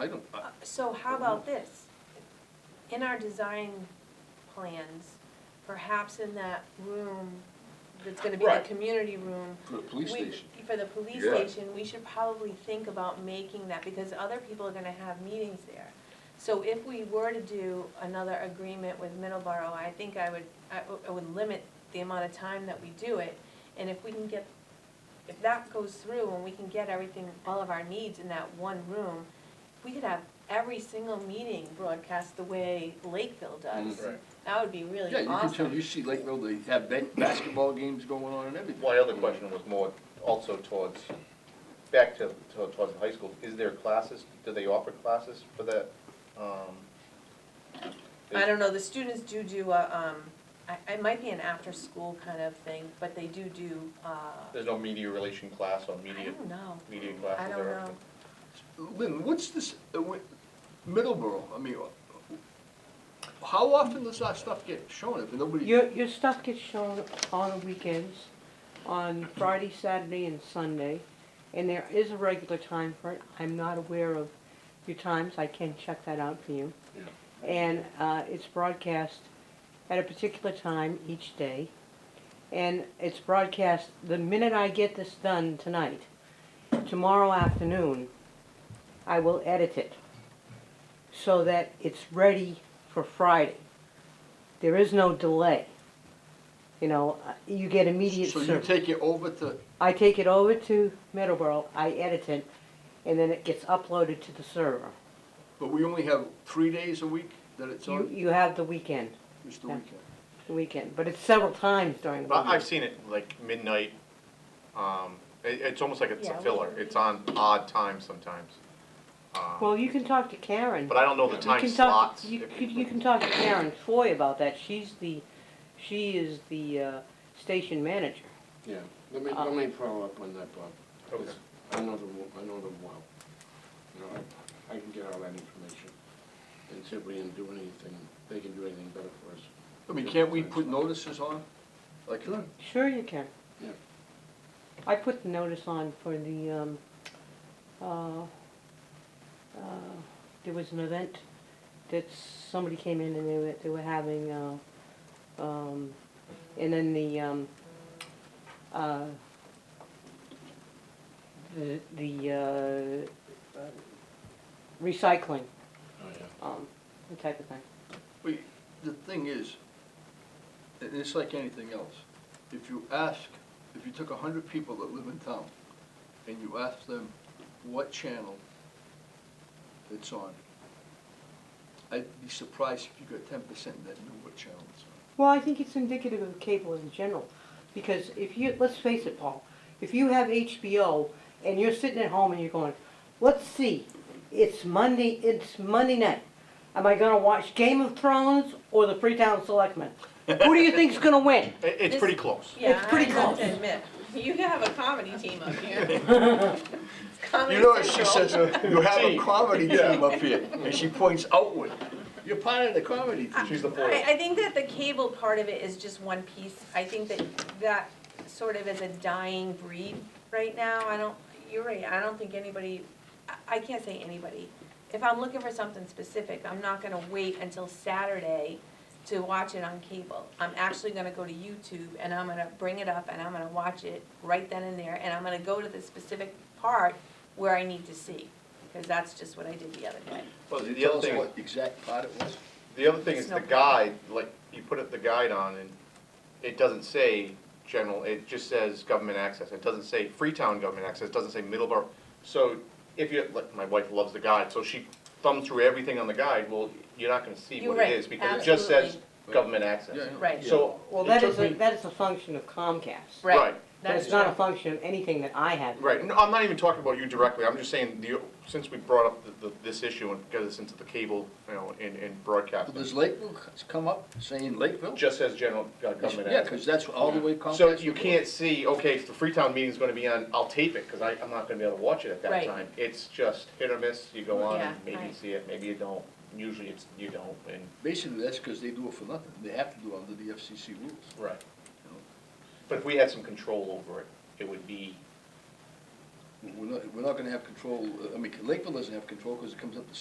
I don't, I- Uh, So how about this? In our design plans, perhaps in that room that's gonna be the Right. community room. for the police we- station, For the police Yeah. station, we should probably think about making that, because other people are gonna have meetings there. So if we were to do another agreement with Middleborough, I think I would, I w- I would limit the amount of time that we do it. And if we can get, if that goes through and we can get everything, all of our needs in that one room, we could have every single meeting broadcast the way Lakeville does. Mm. Right. That would be really yeah, you can tell, awesome. you see Lakeville, they have ba- basketball games going on and everything. My other question was more also towards, back to, to- towards the high school, is there classes, do they offer classes for that? Um, I don't know, the students do do a, um, I, it might be an after-school kind of thing, but they do do, uh, There's no media relation class or I media, don't know. media I classes don't or? know. Lynn, what's this, uh, wh- Middleborough, I mean, uh, how often does that stuff get shown if nobody? Your, your stuff gets shown on the weekends, on Friday, Saturday, and Sunday, and there is a regular time for it. I'm not aware of your times, I can check that out for you. And, uh, it's broadcast at a particular time each day, and it's broadcast the minute I get this done tonight. Tomorrow afternoon, I will edit it so that it's ready for Friday there is no delay. You know, uh, you get immediate So you service. take it over to, I take it over to Middleborough, I edit it, and then it gets uploaded to the server. but we only have three days a week that it's You, on, you have the weekend, just the yeah. weekend? the weekend, but it's several times during the But I've week. seen it like midnight, um, it, it's almost like it's Yeah, a we- filler, it's on odd times sometimes. Um, Well, you can talk to Karen. But I don't know the You time you can talk. slots. You, if could- you can talk to Karen Foy about that. She's the, she is the uh, station manager. Yeah, let me, let me follow up on that, Bob. 'cause Okay. I know them, I know them well. You know, I, I can get all that information and see if we can do anything, they can do anything better for us. I mean, can't we put notices on? Like, Sure you can. Yeah. I put the notice on for the, um, uh, uh, there was an event that somebody came in and they were, they were having, uh, um, and then the, um, uh, the, the, uh, uh, recycling, Oh, yeah. um, the type of thing. Well, you- the thing is, and it's like anything else, if you ask, if you took a hundred people that live in town and you ask them what channel it's on, I'd be surprised if you got ten percent that knew what channel it's on. Well, I think it's indicative of cable in general, because if you, let's face it, Paul, if you have HBO and you're sitting at home and you're going, let's see, it's Monday, it's Monday night. Am I gonna watch Game of Thrones or the Freetown Selectmen? Who do you think's gonna win? It, it's This- pretty close. Yeah, I pretty have close. to admit, you have a comedy team up here. It's Comedy You know, what she Central. says, uh, you have a Team. comedy team up here, and she points outward. You're part of the comedy team. She's the foil. I, I think that the cable part of it is just one piece. I think that that sort of is a dying breed right now. I don't, you're right, I don't think anybody, I- I can't say anybody. If I'm looking for something specific, I'm not gonna wait until Saturday to watch it on cable. I'm actually gonna go to YouTube and I'm gonna bring it up and I'm gonna watch it right then and there. And I'm gonna go to the specific part where I need to see, because that's just what I did the other day. Well, Can you the tell other us thing is- what exact part it was? The other thing is Snow the plow. guide, like, you put up the guide on and it doesn't say general, it just says government access. It doesn't say Freetown government access, it doesn't say Middleborough. So if you, like, my wife loves the guide, so she thumbs through everything on the guide, well, you're not gonna see You're what right, it is because it just says government access. Yeah, I know. Right. So. Well, it that took is, a me- that is a function of Comcast. Right. Right. But That's it's not true. a function of anything that I have. Right, no, I'm not even talking about you directly, I'm just saying, the, since we brought up the- the, this issue and got this into the cable, you know, in, in broadcasting, Does Lakeville come up saying Lakeville? just says general uh, government Yeah, access. because that's all the way Comcast. So you can't see, okay, if the Freetown meeting's gonna be on, I'll tape it, cause I, I'm not gonna be able to watch it at that Right. time. It's just hit or miss, you go on, and Yeah, maybe you right. see it, maybe you don't, usually it's, you don't, and. Basically, that's because they do it for nothing. They have to do it under the FCC rules. Right. But if we had some control over it, it would be we're not, we're not gonna have control, I mean, Lakeville doesn't have control because it comes up the